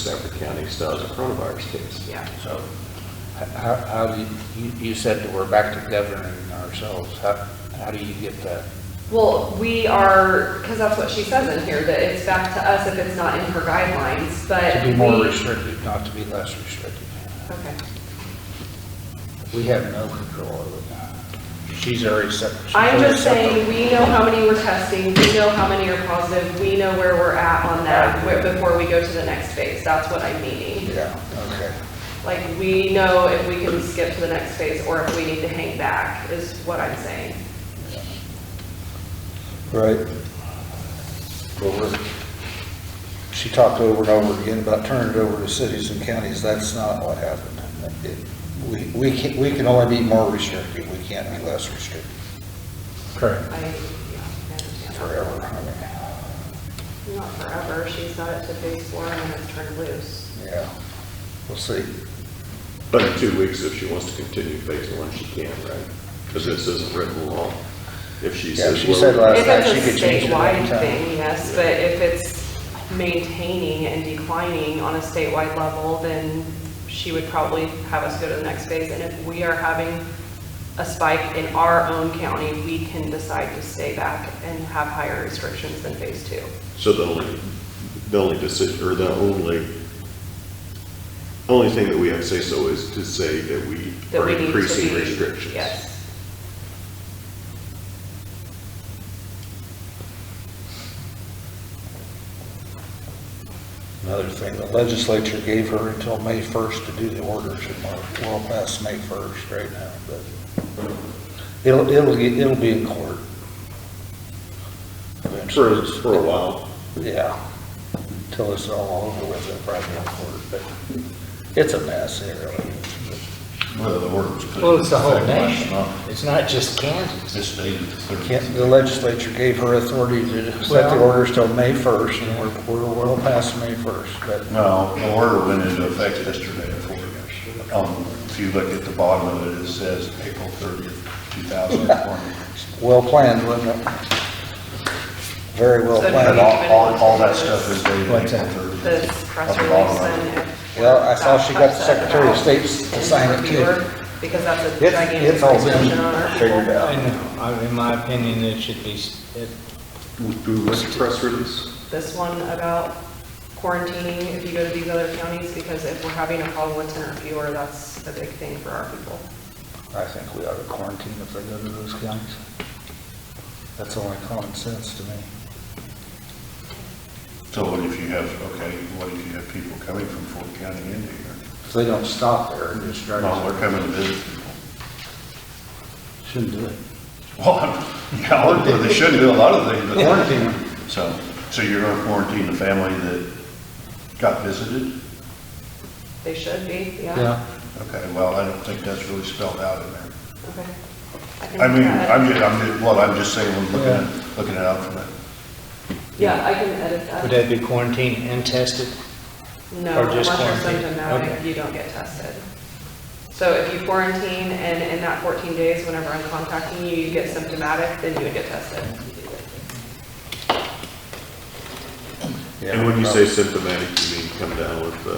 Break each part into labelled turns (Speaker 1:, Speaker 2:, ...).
Speaker 1: Stafford County still has a coronavirus case.
Speaker 2: Yeah.
Speaker 3: So, h- how, how, do you, you- you said that we're back to governing ourselves, how, how do you get that?
Speaker 2: Well, we are, because that's what she says in here, that it's back to us if it's not in her guidelines, but.
Speaker 3: To be more
Speaker 2: we-
Speaker 3: restrictive, not to be less restrictive.
Speaker 2: Okay.
Speaker 3: We have no control over that. She's already set. she's
Speaker 2: I'm
Speaker 3: already
Speaker 2: just
Speaker 3: set the-
Speaker 2: saying, we know how many we're testing, we know how many are positive, we know where we're at on that wi- before we go to the next phase. That's what I'm meaning.
Speaker 3: Yeah, okay.
Speaker 2: Like, we know if we can skip to the next phase or if we need to hang back, is what I'm saying.
Speaker 3: Right. But we're, she talked over and over again about turning it over to cities and counties, that's not what happened. It- We, we can, we can only be more restrictive, we can't be less restrictive
Speaker 4: Correct.
Speaker 2: I, yeah, I understand. that.
Speaker 3: forever. I mean,
Speaker 2: Not forever, she's not up to phase four and it's turned loose.
Speaker 3: Yeah, we'll see.
Speaker 1: But in two weeks, if she wants to continue phase one, she can, right? Because this isn't written law. If she
Speaker 3: Yeah,
Speaker 1: says.
Speaker 3: she
Speaker 1: well,
Speaker 3: said last-
Speaker 2: If
Speaker 3: time, Uh, she could
Speaker 2: it's a
Speaker 3: change it at any
Speaker 2: statewide
Speaker 3: time.
Speaker 2: thing, yes, but if it's maintaining and declining on a statewide level, then she would probably have us go to the next phase. And if we are having a spike in our own county, we can decide to stay back and have higher restrictions than phase two.
Speaker 1: So the only, the only decision, or the only, only thing that we have to say so is to say that we
Speaker 2: That
Speaker 1: are
Speaker 2: we need to
Speaker 1: increasing
Speaker 2: be-
Speaker 1: restrictions.
Speaker 2: Yes.
Speaker 3: Another thing, the legislature gave her until May 1st to do the orders, and we're well past May 1st right now, but it'll, it'll, get- it'll be in court.
Speaker 1: For, for a while.
Speaker 3: Yeah, until it's all over with, it'll probably be in court, but it's a mess, it really is.
Speaker 5: Well, the ordinance. put
Speaker 4: Well, it's the whole
Speaker 5: into effect last
Speaker 4: nation.
Speaker 5: month.
Speaker 4: It's not just Kansas.
Speaker 5: This day is the
Speaker 3: But
Speaker 5: 13th.
Speaker 3: can't- The legislature gave her authority to set the
Speaker 4: Well-
Speaker 3: orders till May 1st, and we're, we're well past May 1st, but
Speaker 5: No, the order went into effect yesterday for, um, if you look at the bottom of it, it says April 30th, 2020.
Speaker 3: well planned, wasn't it? Very well
Speaker 2: So do
Speaker 3: planned.
Speaker 5: And all, all, all that stuff is dated
Speaker 4: What's
Speaker 5: April
Speaker 4: that?
Speaker 5: 30th.
Speaker 2: The
Speaker 5: At
Speaker 2: press
Speaker 5: the
Speaker 2: release
Speaker 5: bottom of
Speaker 2: and.
Speaker 5: it.
Speaker 2: if-
Speaker 3: Well, I saw she got the
Speaker 2: upset
Speaker 3: Secretary of
Speaker 2: about
Speaker 3: State's to sign it, too.
Speaker 2: reviewer, Because that's a
Speaker 3: It's-
Speaker 2: gigantic
Speaker 3: it's all been
Speaker 2: discussion on our people.
Speaker 3: figured out.
Speaker 4: I know, I- in my opinion, it should be, s- it-
Speaker 1: What's the press release?
Speaker 2: this one about quarantining if you go to these other counties, because if we're having a problem with tenant fewer, that's a big thing for our people.
Speaker 3: I think we ought to quarantine if they go to those counties. That's only common sense to me.
Speaker 5: So what if you have, okay, what if you have people coming from Fort County into here?
Speaker 3: If they don't stop there and just drive.
Speaker 5: Well, they're coming to visit people.
Speaker 3: Shouldn't do it.
Speaker 5: Well, yeah, they shouldn't do a lot of things, but.
Speaker 3: Quarantine them.
Speaker 5: So, so you're gonna quarantine the family that got visited?
Speaker 2: They should be, yeah.
Speaker 3: Yeah,
Speaker 5: Okay, well, I don't think that's really spelled out in there.
Speaker 2: Okay. can
Speaker 5: I mean,
Speaker 2: add-
Speaker 5: I'm just, I'm just, well, I'm just saying, we're looking at, looking it up from it.
Speaker 2: Yeah, I can edit that.
Speaker 4: would that be quarantined and tested?
Speaker 2: No,
Speaker 4: or
Speaker 2: unless
Speaker 4: just
Speaker 2: you're
Speaker 4: quarantine?
Speaker 2: symptomatic,
Speaker 4: Okay.
Speaker 2: you don't get tested. So if you quarantine and in that 14 days, whenever I'm contacting you, you get symptomatic, then you would get tested.
Speaker 1: And when you say symptomatic, you mean come down with the,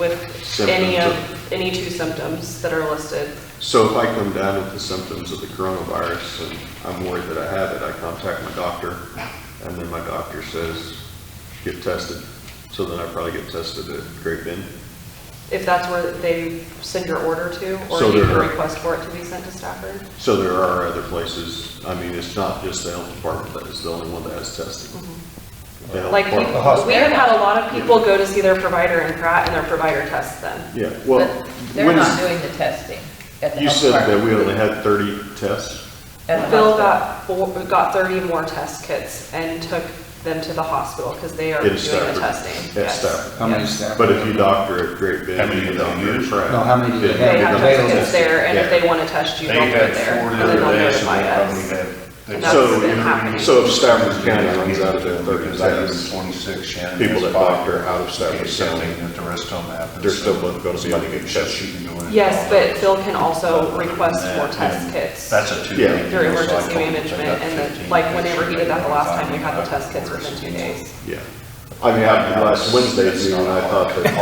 Speaker 2: With
Speaker 1: Symptoms
Speaker 2: any of,
Speaker 1: of-
Speaker 2: any two symptoms that are listed,
Speaker 1: so if I come down with the symptoms of the coronavirus and I'm worried that I have it, I contact my doctor and then my doctor says, get tested. So then I probably get tested at Great Bend.
Speaker 2: if that's where they send your order to, or
Speaker 1: So
Speaker 2: you can
Speaker 1: they're-
Speaker 2: request for it to be sent to Stafford.
Speaker 1: So there are other places, I mean, it's not just the health department that is the only one that has testing. The health
Speaker 2: Like, we
Speaker 1: department-
Speaker 2: we have had a lot of people go to see their provider in Pratt, and their provider tests them.
Speaker 1: Yeah, well.
Speaker 6: But They're
Speaker 1: when is-
Speaker 6: not doing the testing at the
Speaker 1: You
Speaker 6: health
Speaker 1: said that we
Speaker 6: department.
Speaker 1: only had 30 tests.
Speaker 6: at the
Speaker 2: Bill
Speaker 6: hospital.
Speaker 2: got, four- got 30 more test kits and took them to the hospital, because they are
Speaker 1: In
Speaker 2: doing the
Speaker 1: Stafford.
Speaker 2: testing.
Speaker 1: At
Speaker 2: Yes.
Speaker 1: Stafford.
Speaker 3: how many
Speaker 2: Yes.
Speaker 3: staff?
Speaker 1: But if you doctor at Great Bend.
Speaker 5: How many
Speaker 1: you
Speaker 5: do they
Speaker 1: doctor at
Speaker 5: use?
Speaker 1: Pratt,
Speaker 3: No, how many do they
Speaker 1: then
Speaker 2: They
Speaker 1: you
Speaker 2: have
Speaker 1: don't-
Speaker 2: test kits there, and if
Speaker 1: Yeah.
Speaker 2: they want to test you,
Speaker 5: They
Speaker 2: they'll put
Speaker 5: had
Speaker 2: it there,
Speaker 5: four
Speaker 2: and
Speaker 5: the
Speaker 2: then they'll
Speaker 5: other day, so
Speaker 2: notify
Speaker 5: they probably
Speaker 2: us.
Speaker 5: had. they-
Speaker 2: And that's been
Speaker 1: So,
Speaker 2: happening.
Speaker 1: so if Stafford County runs out of their
Speaker 5: Because
Speaker 1: 30
Speaker 5: I have
Speaker 1: tests,
Speaker 5: 26, Shannon.
Speaker 1: people that
Speaker 5: has five.
Speaker 1: doctor out of Stafford
Speaker 5: Okay, so
Speaker 1: County,
Speaker 5: they- That the rest of them happen.
Speaker 1: they're
Speaker 5: so
Speaker 1: still both gonna be
Speaker 5: somebody
Speaker 1: able to
Speaker 5: gets
Speaker 1: get
Speaker 5: tested, you can go in and
Speaker 2: Yes,
Speaker 5: call it.
Speaker 2: but Phil can also request
Speaker 5: Other than
Speaker 2: more
Speaker 5: that,
Speaker 2: test
Speaker 5: then
Speaker 2: kits.
Speaker 5: That's a two.
Speaker 1: Yeah.
Speaker 2: through emergency management, and then, like, whenever he did that the last time, we had the test kits within two days.
Speaker 1: yeah. I mean, I, last Wednesday's meeting, I thought that